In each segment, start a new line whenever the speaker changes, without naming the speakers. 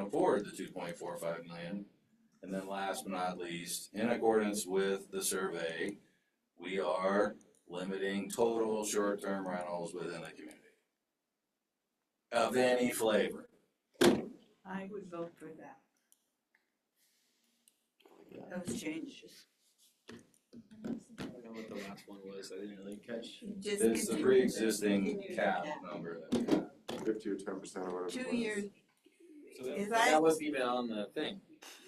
the two point four five million. And then last but not least, in accordance with the survey, we are limiting total short-term rentals within the community. Of any flavor.
I would vote for that. Those changes.
I don't know what the last one was, I didn't really catch.
Just
It's the
continue-
pre-existing
continue to
cap
cap.
number that we have.
fifty or ten percent or whatever. it
Two
was.
years,
So that-
Is I-
That wasn't even on the thing.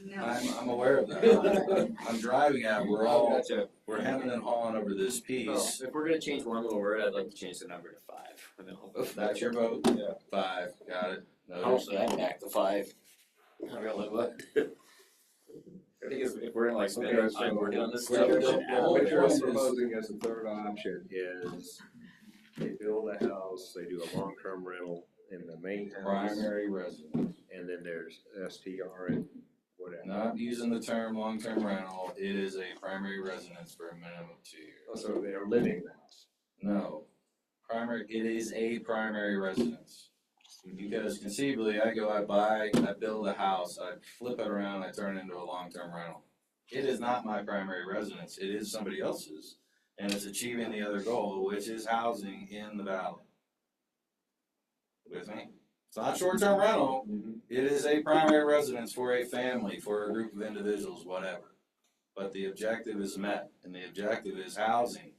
no,
I'm, I'm aware of that. I'm driving at, we're all,
Gotcha.
we're hemming and hawing over this
Well,
piece.
Oh, if we're gonna change one little word, I'd like to change the number to five. and then I'll vote for
That's your vote?
Yeah.
Five, got it?
I'll
Noted.
add back the five. I don't know what. I think if, if we're gonna like spend our
Okay,
time
so
working on this
What
stuff.
you're,
the-
then
the whole
what
add
you're
point is-
proposing as a third option is they build a house, they do a long-term rental in the main house,
Primary residence.
and then there's STR and whatever.
Not using the term long-term rental, it is a primary residence for a minimum of two years.
So they are living in the house.
No, primary, it is a primary residence. Because conceivably, I go, I buy, I build a house, I flip it around, I turn it into a long-term rental. It is not my primary residence, it is somebody else's, and it's achieving the other goal, which is housing in the valley. With me? It's not short-term rental, it is a primary residence for a family, for a group of individuals, whatever. But the objective is met, and the objective is housing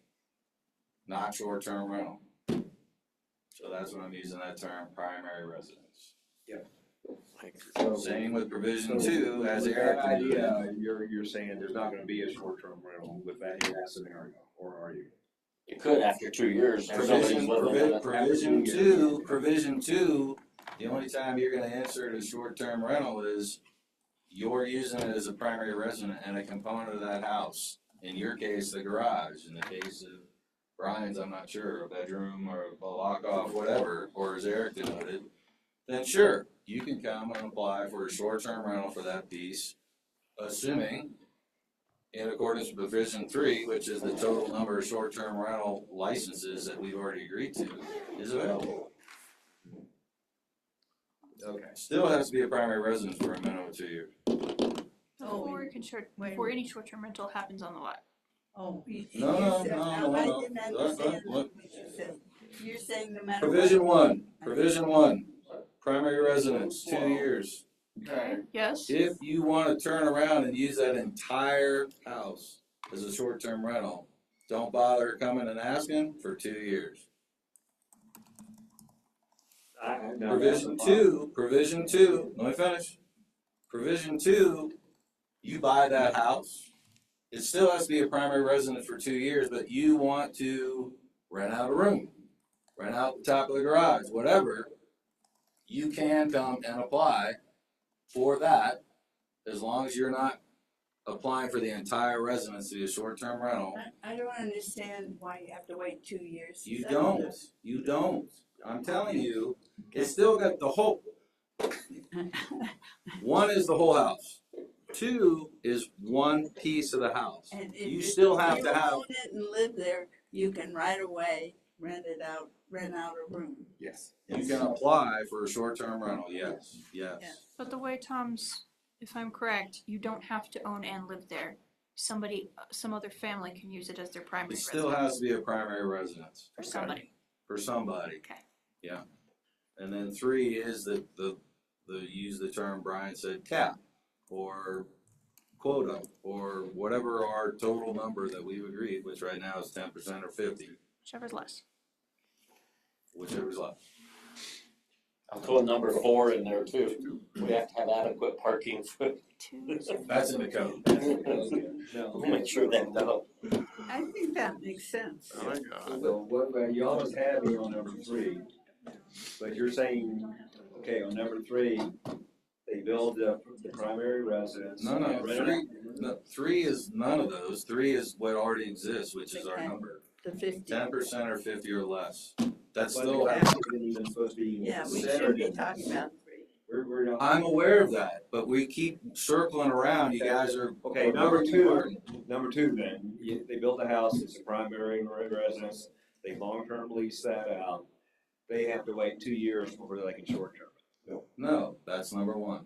not short-term rental. So that's when I'm using that term, primary residence.
So-
Same with provision
So
two, as
with
Eric
that
alluded.
idea, you're, you're saying there's not gonna be a short-term rental with that in that scenario, or are you?
It could after two years. if somebody's
Provision,
living in
provi-
it.
provision two, provision two, the only time you're gonna insert a short-term rental is you're using it as a primary resident and a component of that house. In your case, the garage, in the case of Brian's, I'm not sure, a bedroom or a lock-off, whatever, or as Eric denoted, then sure, you can come and apply for a short-term rental for that piece, assuming in accordance with provision three, which is the total number of short-term rental licenses that we've already agreed to, is available.
Okay.
Still has to be a primary residence for a minimum of two years.
Oh,
Before it can short,
wait a
before any short-term rental happens on the lot.
oh. you-
No,
you
no,
said-
no,
now,
no,
I
no.
didn't
Look, look,
understand
look.
what you said. You're saying no matter.
Provision
what-
one, provision one, primary residence, two years.
Okay. Yes?
If you wanna turn around and use that entire house as a short-term rental, don't bother coming and asking for two years. Provision two, provision two, let me finish. Provision two, you buy that house. It still has to be a primary residence for two years, but you want to rent out a room, rent out the top of the garage, whatever. You can come and apply for that as long as you're not applying for the entire residency of short-term rental.
I- I don't understand why you have to wait two years. to
You
settle
don't,
this.
you don't. I'm telling you, it's still got the whole. One is the whole house. Two is one piece of the house.
And if.
You
if
still have to have-
You own it and live there, you can right away rent it out, rent out a room.
Yes.
You can apply for a short-term rental, yes, yes.
Yes.
But the way Tom's, if I'm correct, you don't have to own and live there. Somebody, some other family can use it as their primary
It
residence.
still has to be a primary residence.
For somebody.
For somebody.
Okay.
Yeah. And then three is the, the, the, use the term Brian said, cap, or quota, or whatever our total number that we've agreed, which right now is ten percent or fifty,
Whichever's less.
whichever's left.
I'll throw number four in there too. We have to have adequate parking for,
Two.
That's in the code.
No.
make sure that, uh, no.
I think that makes sense.
Oh So what, well, you almost had me on number three, but you're saying, okay, on number three, they build the, the primary residence.
No, no,
rent it out.
three, no, three is none of those. Three is what already exists, which is our
Okay.
number.
The fifty.
Ten percent or fifty or less. That's
But the
still,
cap isn't even supposed to be
Yeah, we should
considered.
be
in that.
talking about three.
We're, we're not-
I'm aware of that, but we keep circling around. You guys are.
Okay, number two, number two then, you- they built a house, it's a primary residence, they long-term lease that out. They have to wait two years before they can short-term.
No, that's number one.